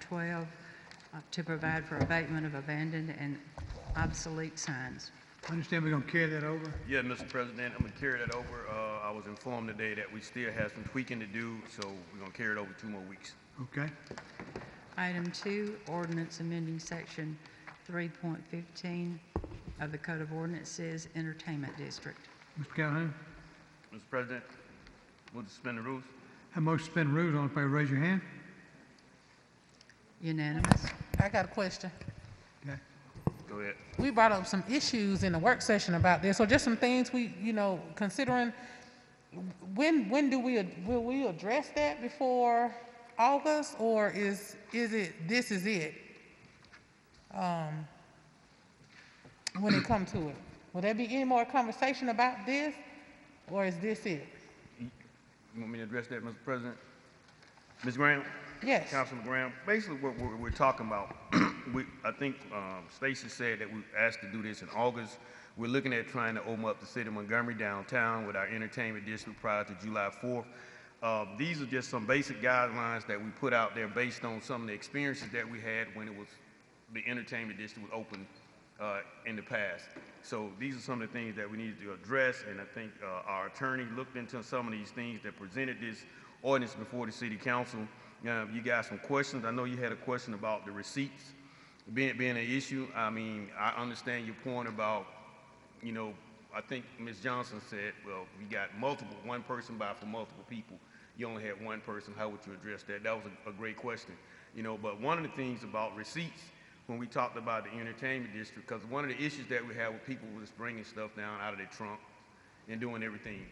12 uh, to provide for abatement of abandoned and obsolete signs. I understand we're gonna carry that over. Yeah, Mr. President, I'm gonna carry that over. Uh, I was informed today that we still have some tweaking to do, so we're gonna carry it over two more weeks. Okay. Item two, ordinance amending section 3.15 of the Code of Ordinances, Entertainment District. Mr. Calhoun, Mr. President, we'll suspend the rules. have motion to suspend rules. All in favor, raise your hand. Unanimous? I got a question. Okay. Go ahead. We brought up some issues in the work session about this, or just some things we, you know, considering. When, when do we, will we address that before August, or is, is it, this is it? Um, When it come to it? Will there be any more conversation about this, or is this it? You want me to address that, Mr. President? Ms. Graham? Yes. Councilman Graham, basically what we're, we're talking about, we, I think, um, Stacy said that we asked to do this in August. We're looking at trying to open up the city of Montgomery downtown with our entertainment district prior to July fourth. Uh, these are just some basic guidelines that we put out there based on some of the experiences that we had when it was, the entertainment district was open, uh, in the past. So these are some of the things that we needed to address, and I think, uh, our attorney looked into some of these things that presented this ordinance before the city council. Now, if you got some questions, I know you had a question about the receipts being, being an issue. I mean, I understand your point about, you know, I think Ms. Johnson said, well, we got multiple, one person buy for multiple people. You only had one person, how would you address that? That was a, a great question, you know, but one of the things about receipts, when we talked about the entertainment district, because one of the issues that we had with people was bringing stuff down out of their trunk and doing everything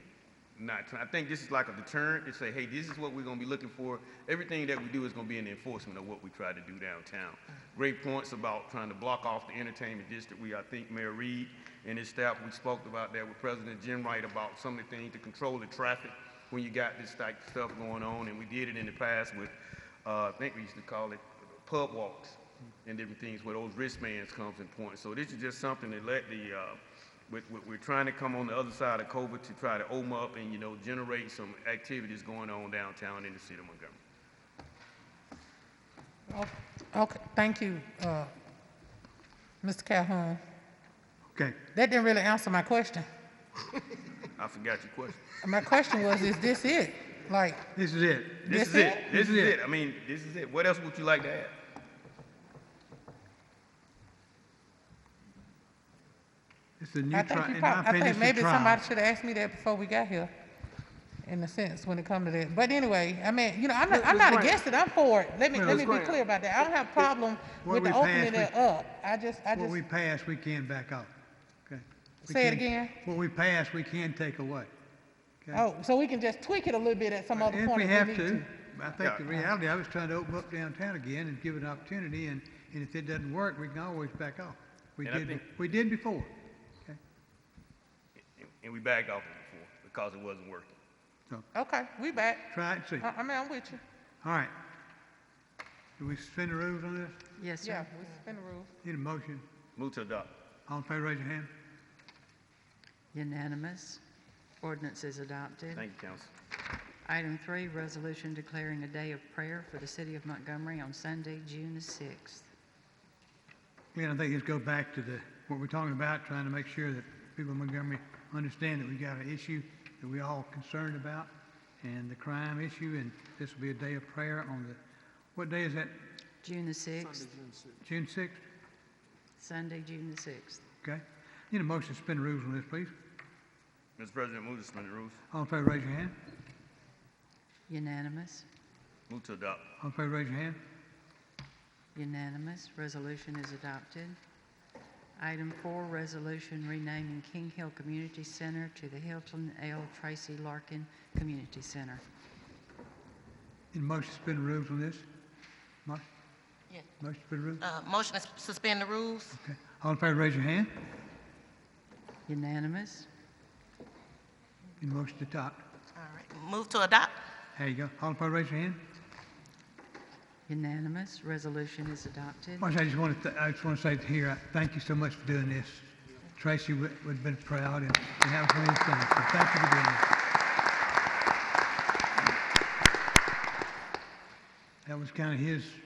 not, try- I think this is like a deterrent to say, hey, this is what we're gonna be looking for. Everything that we do is gonna be in the enforcement of what we try to do downtown. Great points about trying to block off the entertainment district. We, I think Mayor Reed and his staff, we spoke about that with President Jim Wright about some of the things to control the traffic when you got this type of stuff going on, and we did it in the past with, uh, I think we used to call it pub walks and different things where those wristbands comes in point. So this is just something to let the, uh, we're, we're- we're trying to come on the other side of COVID to try to open up and, you know, generate some activities going on downtown in the city of Montgomery. Okay, thank you, uh, Mr. Calhoun. Okay. That didn't really answer my question. I forgot your question. My question was, is this it? Like, This is it. This This is it, it? this is it. I mean, this is it. What else would you like to add? It's a new I trial. think you In my prob- I opinion, think it's a maybe trial. somebody should have asked me that before we got here, in a sense, when it come to that. But anyway, I mean, you know, I'm not, I'm not against it, I'm for it. Let me, Well, let Ms. me be clear about that. I don't have a problem What with we the opening passed, it we- up. I just, I What just, we pass, we can back off. Okay. We Say it can- again? What we pass, we can take away. Okay. oh, so we can just tweak it a little bit at some other If point we if have we need to, to. I think the Yeah. reality, I was trying to open up downtown again and give it an opportunity, and, and if it doesn't work, we can always back off. We And I did, think- be- we did before. Okay, And- And we backed off it before because it wasn't working. so Okay, we back. try it and see. I, I mean, I'm with you. All right. Do we suspend the rules on this? Yes, Yeah, sir. we suspend the rules. Need a motion? Move to adopt. All in favor, raise your hand. Unanimous. Ordinance is adopted. Thank you, council. Item three, resolution declaring a day of prayer for the city of Montgomery on Sunday, June the 6th. Glenn, I think let's go back to the, what we're talking about, trying to make sure that people in Montgomery understand that we got an issue that we all concerned about, and the crime issue, and this will be a day of prayer on the, what day is that? June the 6th, June sixth? Sunday, June the 6th. Okay. Need a motion to suspend rules on this, please. Mr. President, move to suspend the rules. All in favor, raise your hand. Unanimous. Move to adopt. All in favor, raise your hand. Unanimous. Resolution is adopted. Item four, resolution renaming King Hill Community Center to the Hilton L. Tracy Larkin Community Center. Need a motion to suspend rules on this? Motion? Yes. Motion to suspend rules? Uh, Motion to suspend the rules? Okay. All in favor, raise your hand. Unanimous. Need a motion to adopt. All right. Move to adopt? There you go. All in favor, raise your hand. Unanimous. Resolution is adopted. Marcia, I just want to, I just want to say here, I thank you so much for doing this. Tracy would would have been proud and and have one of these things, so thank you for doing this. That was kind of his